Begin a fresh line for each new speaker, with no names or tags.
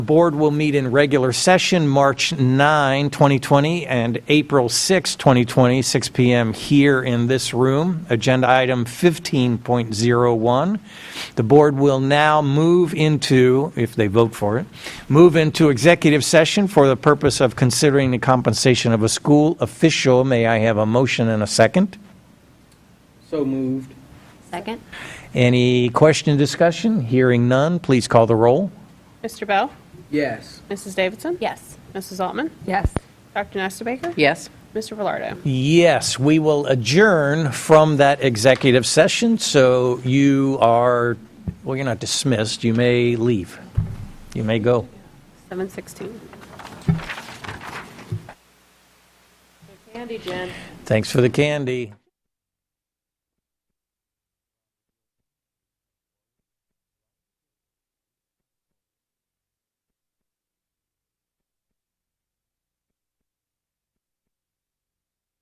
Board will meet in regular session March 9, 2020, and April 6, 2020, 6 PM here in this room. Agenda item 15.01. The board will now move into, if they vote for it, move into executive session for the purpose of considering the compensation of a school official. May I have a motion and a second?
So moved.
Second?
Any question, discussion? Hearing none, please call the roll.
Mr. Bell?
Yes.
Mrs. Davidson?
Yes.
Mrs. Altman?
Yes.
Dr. Nesterbaker?
Yes.
Mr. Velardo?
Yes, we will adjourn from that executive session, so you are, well, you're not dismissed, you may leave. You may go.
716.
Thanks for the candy.